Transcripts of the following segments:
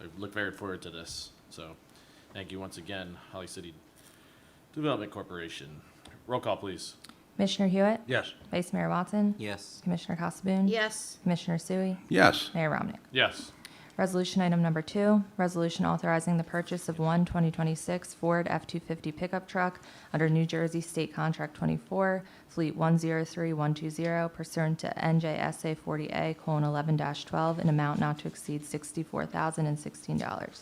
I look very forward to this. So, thank you once again, Holly City Development Corporation. Roll call, please. Commissioner Hewitt? Yes. Vice Mayor Watson? Yes. Commissioner Casabun? Yes. Commissioner Sui? Yes. Mayor Ramnick? Yes. Resolution item number two, resolution authorizing the purchase of one 2026 Ford F-250 pickup truck under New Jersey State Contract 24, Fleet 103120 pursuant to NJSA 40A:11-12, an amount not to exceed $64,016.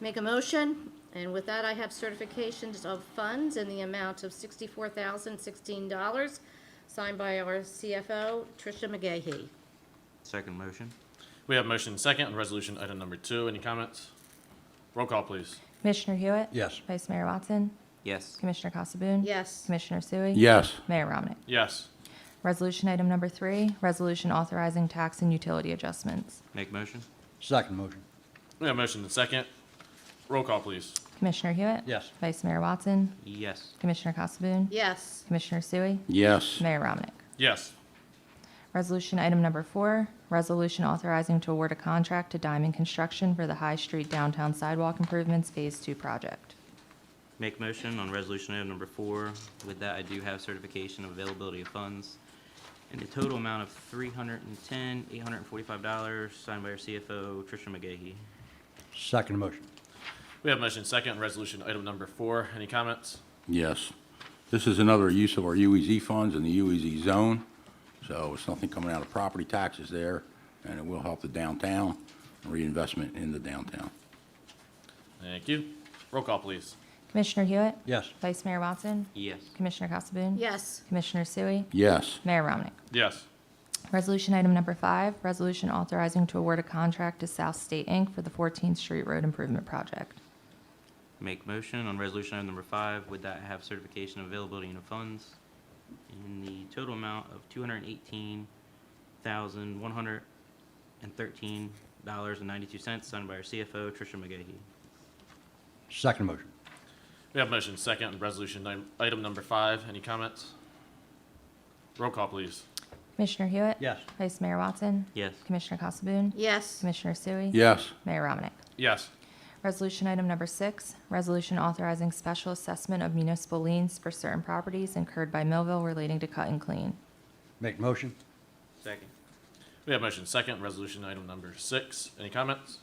Make a motion, and with that, I have certifications of funds in the amount of sixty-four thousand, sixteen dollars, signed by our CFO, Tricia McGahey. Second motion? We have motion second on resolution item number two. Any comments? Roll call, please. Commissioner Hewitt? Yes. Vice Mayor Watson? Yes. Commissioner Casabun? Yes. Commissioner Sui? Yes. Mayor Ramnick? Yes. Resolution item number three, resolution authorizing tax and utility adjustments. Make motion? Second motion. We have motion and second. Roll call, please. Commissioner Hewitt? Yes. Vice Mayor Watson? Yes. Commissioner Casabun? Yes. Commissioner Sui? Yes. Mayor Ramnick? Yes. Resolution item number four, resolution authorizing to award a contract to Diamond Construction for the High Street Downtown Sidewalk Improvements Phase Two project. Make motion on resolution item number four. With that, I do have certification of availability of funds in the total amount of three hundred and ten, eight hundred and forty-five dollars, signed by our CFO, Tricia McGahey. Second motion. We have motion second on resolution item number four. Any comments? Yes. This is another use of our UEZ funds in the UEZ zone, so it's nothing coming out of property taxes there, and it will help the downtown, reinvestment in the downtown. Thank you. Roll call, please. Commissioner Hewitt? Yes. Vice Mayor Watson? Yes. Commissioner Casabun? Yes. Commissioner Sui? Yes, Mayor Ramnick? Yes. Resolution item number five, resolution authorizing to award a contract to South State Inc. for the 14th Street Road Improvement Project. Make motion on resolution item number five. With that, I have certification of availability of funds in the total amount of two hundred and eighteen thousand, one hundred and thirteen dollars and ninety-two cents, signed by our CFO, Tricia McGahey. Second motion. We have motion second on resolution ni- item number five. Any comments? Roll call, please. Commissioner Hewitt? Yes. Vice Mayor Watson? Yes. Commissioner Casabun? Yes. Commissioner Sui? yes, Mayor Ramnick? Yes. Resolution item number six, resolution authorizing special assessment of municipal liens for certain properties incurred by Millville relating to cut and clean. Make motion. Second. We have motion second on resolution item number six. Any comments?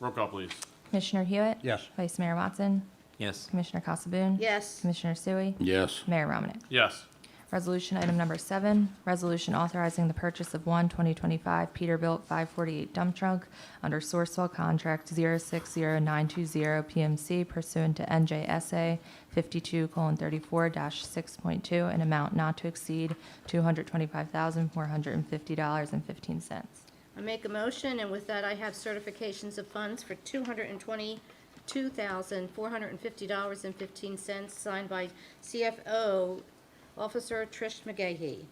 Roll call, please. Commissioner Hewitt? Yes. Vice Mayor Watson? Yes. Commissioner Casabun? Yes. Commissioner Sui? yes, Mayor Ramnick? Yes. Resolution item number seven, resolution authorizing the purchase of one 2025 Peterbilt 548 dump truck under Sourcewell Contract 060920 PMC pursuant to NJSA 52:34-6.2 an amount not to exceed $225,450.15. I make a motion, and with that, I have certifications of funds for two hundred and twenty-two thousand, four hundred and fifty dollars and fifteen cents, signed by CFO Officer Trish McGahey.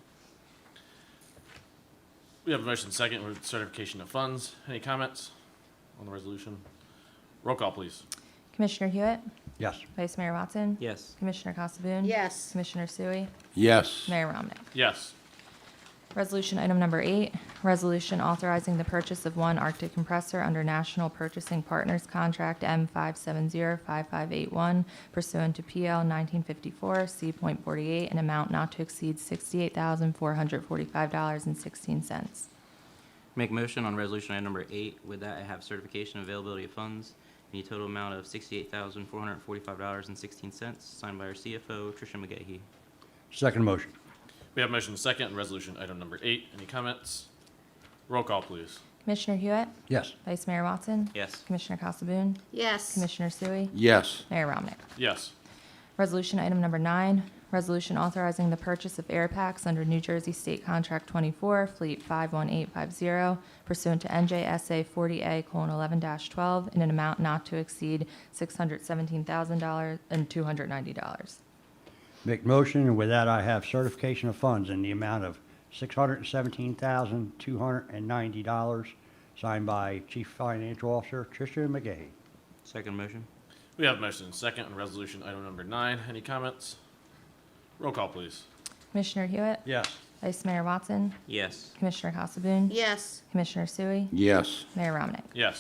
We have motion second with certification of funds. Any comments on the resolution? Roll call, please. Commissioner Hewitt? Yes. Vice Mayor Watson? Yes. Commissioner Casabun? Yes. Commissioner Sui? yes, Mayor Ramnick? Yes. Resolution item number eight, resolution authorizing the purchase of one Arctic compressor under National Purchasing Partners Contract M five seven zero five five eight one pursuant to PL nineteen fifty-four, C point forty-eight, an amount not to exceed sixty-eight thousand four hundred forty-five dollars and sixteen cents. Make motion on resolution item number eight. With that, I have certification of availability of funds in the total amount of sixty-eight thousand, four hundred and forty-five dollars and sixteen cents, signed by our CFO, Tricia McGahey. Second motion. We have motion second on resolution item number eight. Any comments? Roll call, please. Commissioner Hewitt? Yes. Vice Mayor Watson? Yes. Commissioner Casabun? Yes. Commissioner Sui? yes, Mayor Ramnick? Yes. Resolution item number nine, resolution authorizing the purchase of air packs under New Jersey State Contract 24, Fleet 51850 pursuant to NJSA 40A:11-12 in an amount not to exceed $617,000 and $290. Make motion, and with that, I have certification of funds in the amount of six hundred and seventeen thousand, two hundred and ninety dollars, signed by Chief Financial Officer Tricia McGahey. Second motion? We have motion second on resolution item number nine. Any comments? Roll call, please. Commissioner Hewitt? Yes. Vice Mayor Watson? Yes. Commissioner Casabun? Yes. Commissioner Sui? yes. Mayor Ramnick? Yes.